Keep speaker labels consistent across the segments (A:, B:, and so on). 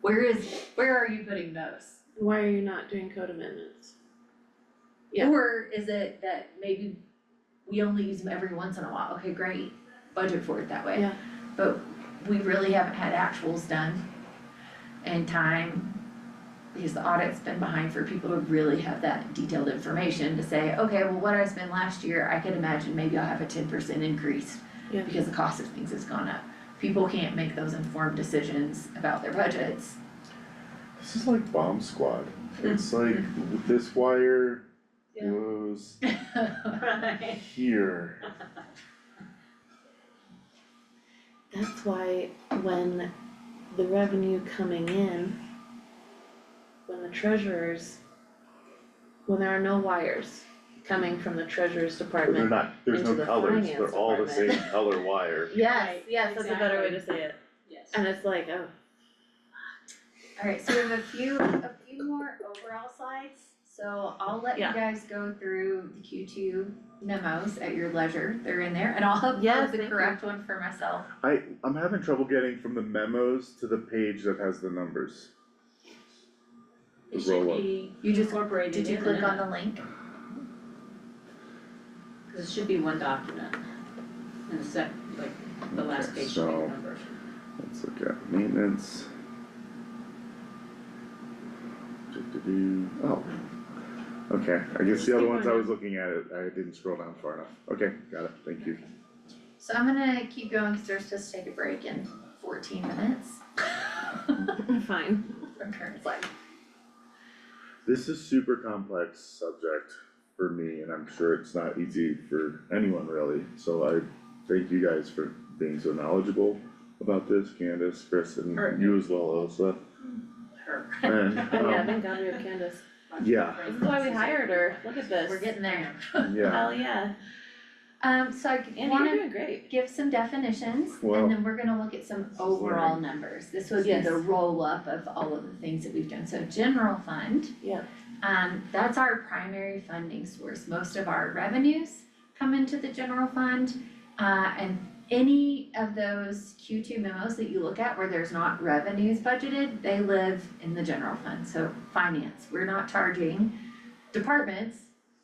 A: Where is, where are you putting those?
B: Why are you not doing code amendments? Yeah.
A: Or is it that maybe we only use them every once in a while, okay, great, budget for it that way.
B: Yeah.
A: But we really haven't had actuals done in time, because the audit's been behind for people to really have that detailed information to say, okay, well, what I spent last year, I could imagine maybe I'll have a ten percent increase.
B: Yeah.
A: Because the cost of things has gone up, people can't make those informed decisions about their budgets.
C: This is like bomb squad. It's like this wire
B: Hmm. Yeah.
C: goes
D: Right.
C: here.
B: That's why when the revenue coming in, when the treasurers, when there are no wires coming from the treasurer's
C: But they're
B: department.
C: not, there's no
B: Into the
C: colors, they're
B: finance
C: all the same
B: department.
C: color wire.
B: Yes,
D: Right,
B: yes, that's a better way
D: exactly.
B: to say it.
D: Yes.
B: And it's like, oh,
A: Alright, so we have a few, a few more overall slides, so I'll let you
B: Yeah.
A: guys go through the Q two memos at your leisure, they're in there, and I'll
B: Yes,
A: upload the
B: thank you.
A: correct one for myself.
C: I, I'm having trouble getting from the memos to the page that has the numbers.
D: It
C: Roll up.
D: should be um,
A: You just,
D: incorporated
A: did you
D: in
A: click
D: it,
A: on the link?
D: Cause it should be one document. And the sec, like, the last
C: Okay,
D: page should be
C: so-
D: the numbers.
C: Let's look at maintenance. Do-do-do. Oh. Okay, I guess the other ones I was looking at, it, I didn't scroll down far enough. Okay, got it, thank you.
A: So I'm gonna keep going, cause we're supposed to take a break in fourteen minutes
B: fine.
A: from current slide.
C: This is super complex subject for me, and I'm sure it's not easy for anyone really, so I thank you guys for being so knowledgeable about this, Candace, Chris, and
D: Sure.
C: you as well, Elsa.
D: Her.
C: And,
B: Oh yeah,
C: um,
B: thank God we have Candace.
C: Yeah.
B: This is why we hired her. Look at this.
A: We're getting there.
C: yeah,
B: Hell yeah.
A: Um, so I
B: And
A: wanna
B: you're doing great.
A: give some definitions,
C: Well-
A: and then we're gonna look at some overall numbers. This would be
B: Yes.
A: the roll-up of all of the things that we've done, so general fund.
B: Yeah.
A: Um, that's our primary funding source, most of our revenues come into the general fund. Uh, and any of those Q two memos that you look at where there's not revenues budgeted, they live in the general fund, so finance, we're not charging departments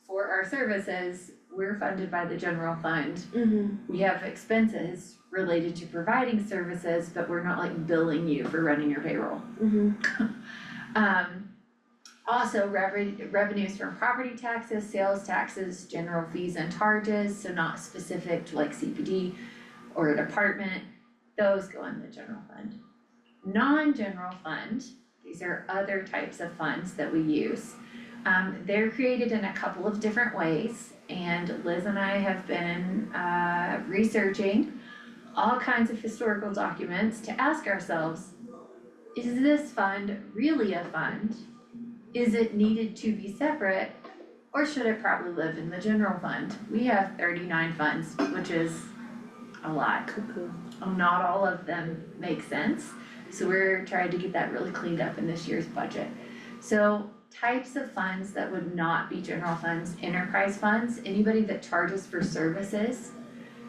A: for our services, we're funded by the general fund.
B: Mm-hmm.
A: We have expenses related to providing services, but we're not like billing you for running your payroll.
B: Mm-hmm.
A: Um, also revenue, revenues from property taxes, sales taxes, general fees and charges, so not specific to like CPD or a department, those go in the general fund. Non-general fund, these are other types of funds that we use. Um, they're created in a couple of different ways, and Liz and I have been, uh, researching all kinds of historical documents to ask ourselves, is this fund really a fund? Is it needed to be separate? Or should it probably live in the general fund? We have thirty-nine funds, which is a lot.
B: Cuckoo.
A: Not all of them make sense, so we're trying to get that really cleaned up in this year's budget. So types of funds that would not be general funds, enterprise funds, anybody that charges for services.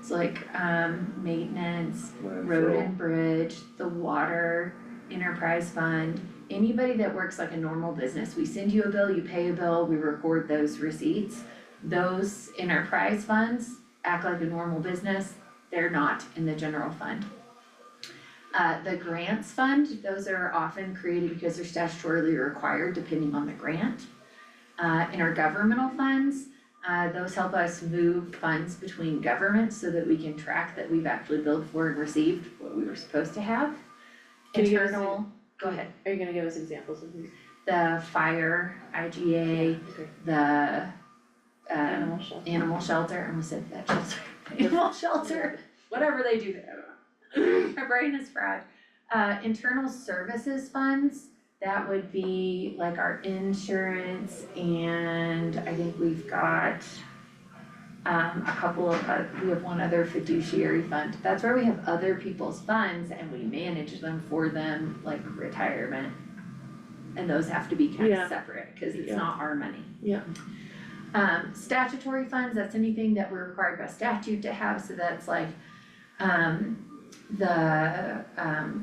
A: So like, um, maintenance, road
C: landfill,
A: and bridge, the water, enterprise fund, anybody that works like a normal business, we send you a bill, you pay a bill, we record those receipts. Those enterprise funds act like a normal business, they're not in the general fund. Uh, the grants fund, those are often created because they're statutorily required depending on the grant. Uh, intergovernmental funds, uh, those help us move funds between governments so that we can track that we've actually billed for and received what we were supposed to have.
B: Can you give us a-
A: Internal, go ahead,
B: Are you gonna give us examples of these?
A: the fire, IGA,
B: Okay.
A: the um
B: Animal shelter.
A: animal shelter, I almost said that shelter, animal shelter, whatever they do there, I don't know. My brain is fried. Uh, internal services funds, that would be like our insurance and I think we've got um, a couple of, uh, we have one other fiduciary fund, that's where we have other people's funds and we manage them for them, like retirement. And those have to be kind
B: Yeah.
A: of separate, cause it's
B: Yeah.
A: not our money.
B: Yeah.
A: Um, statutory funds, that's anything that we're required by statute to have, so that's like, um, the, um,